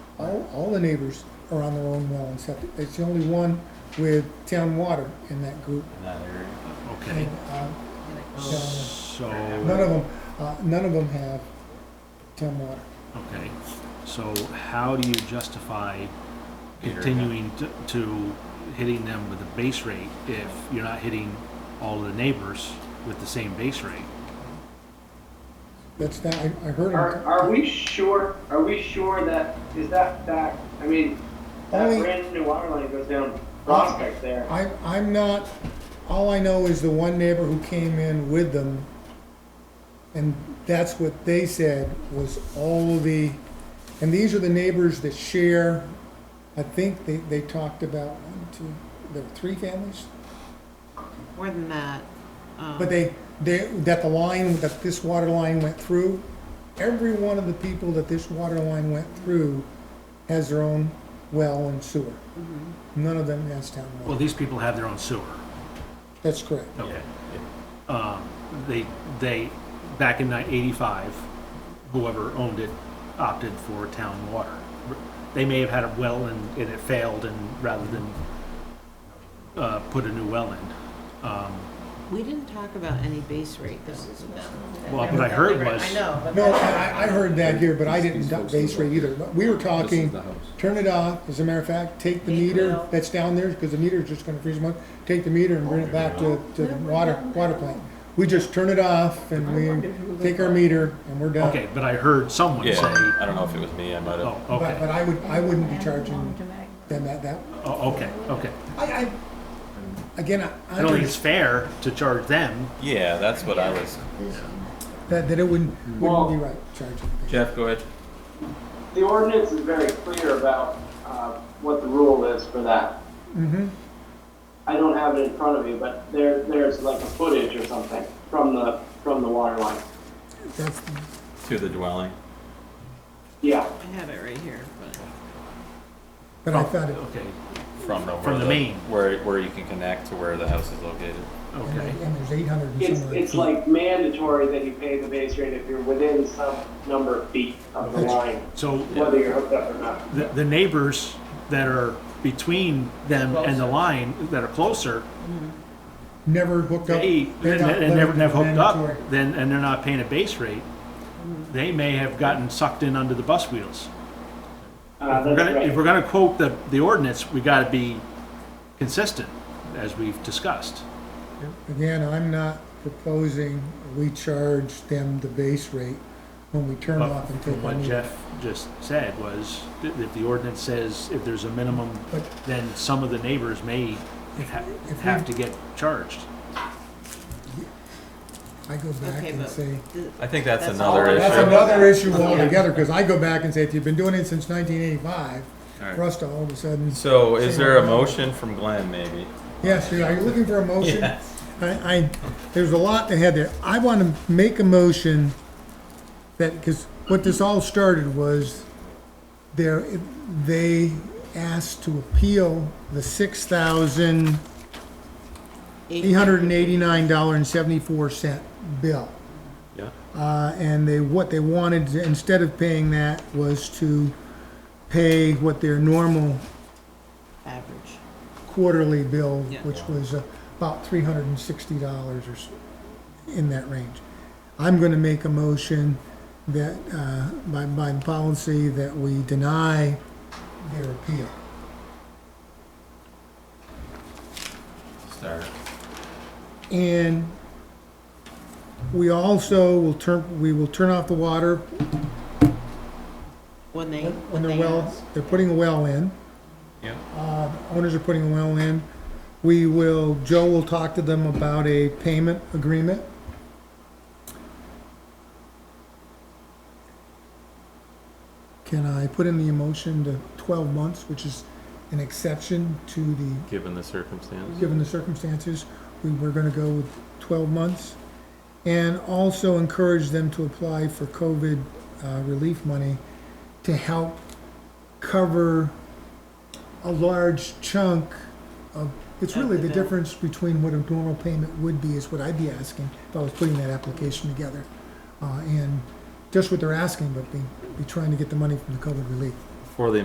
all, all the neighbors are on their own well and septic. It's the only one with town water in that group. in that area. And, Okay, uh, Oh. so so, None of them, uh, none of them have town water. okay, so how do you justify Peter, continuing to, to hitting them with a base rate if you're not hitting all of the neighbors with the same base rate? That's that, I, I heard Are, them. are we sure, are we sure that, is that back, I mean, that Only- brand new water line goes down Prospect there. I, I'm not, all I know is the one neighbor who came in with them, and that's what they said was all the, and these are the neighbors that share, I think they, they talked about one, two, there were three families, More than that. um, but they, they, that the line, that this water line went through, every one of the people that this water line went through has their own well and sewer. None of them has town Well, water. these people have their own sewer. That's correct. Okay. Um, they, they, back in nine- eighty-five, whoever owned it opted for town water. They may have had a well and, and it failed and rather than, uh, put a new well in. Um, We didn't talk about any base rate though. Well, what I heard was- I know, but. No, that- I, I heard that here, but I didn't duck base rate either, but we were This is talking, the house. turn it off, as a matter of fact, take the Take it meter out. that's down there, because the meter's just gonna freeze them up, take the meter and bring it back to, to the water, water plant. We just turn it off and we take our meter and we're done. okay, but I heard someone Yeah, say, I don't know if it was me. I might have. oh, But, but okay, I would, I wouldn't be charging them that, that, oh, okay, okay. I, I, again, I. I don't think it's fair to charge them. Yeah, that's what I was. That, that it wouldn't, Well- wouldn't be right, charging. Jeff, go ahead. The ordinance is very clear about, uh, what the rule is for that. Mm-hmm, I don't have it in front of me, but there, there's like a footage or something from the, from the water line. that's, To the dwelling. Yeah, I have it right here, but but Oh, I thought it, Okay, From the, From where the main. Where, where you can connect to where the house is located. and okay. and there's eight hundred and it's, some. odd it's feet. like mandatory that you pay the base rate if you're within some number of feet of the line, So whether you're hooked up or not. the, the neighbors that are between them and the line, that are closer, Never hooked up. they, they're and not and never, letting never hooked up, mandatory. then, and they're not paying a base rate, they may have gotten sucked in under the bus wheels. Uh, We're that's gonna, if right. we're gonna quote the, the ordinance, we gotta be consistent, as we've discussed. Again, I'm not proposing we charge them the base rate when we turn But off and take from our what meter. Jeff just said was, that if the ordinance says if there's a minimum, But- then some of the neighbors may ha- if we- have to get charged. I go back okay, and but. say, th- I think that's, That's another all- issue. that's another issue Yeah. altogether, because I go back and say, if you've been doing it since nineteen eighty-five, Alright. for us to all of a sudden, So, is there a motion from Glenn, maybe? yes, are you looking for a motion? Yes. I, I, there's a lot to have there. I want to make a motion that, because what this all started was there, they asked to appeal the six thousand eight hundred and eighty-nine dollar and seventy-four cent bill. Yeah. Uh, and they, what they wanted, to- instead of paying that, was to pay what their normal Average. quarterly bill, Yeah. which was uh, about three hundred and sixty dollars or s- in that range. I'm gonna make a motion that, uh, by, by policy, that we deny their appeal. Start. And we also will turn, we will turn off the water When they. when when they're they well, ask. they're putting a well in. Yeah. Uh, owners are putting a well in. We will, Joe will talk to them about a payment agreement. Can I put in the emotion to twelve months, which is an exception to the Given the circumstance. given the circumstances, we were gonna go with twelve months. And also encourage them to apply for COVID uh, relief money to help cover a large chunk of, it's really the difference between what a normal payment would be is what I'd be asking if I was putting that application together. Uh, and just what they're asking, but be, be trying to get the money from the COVID relief. For the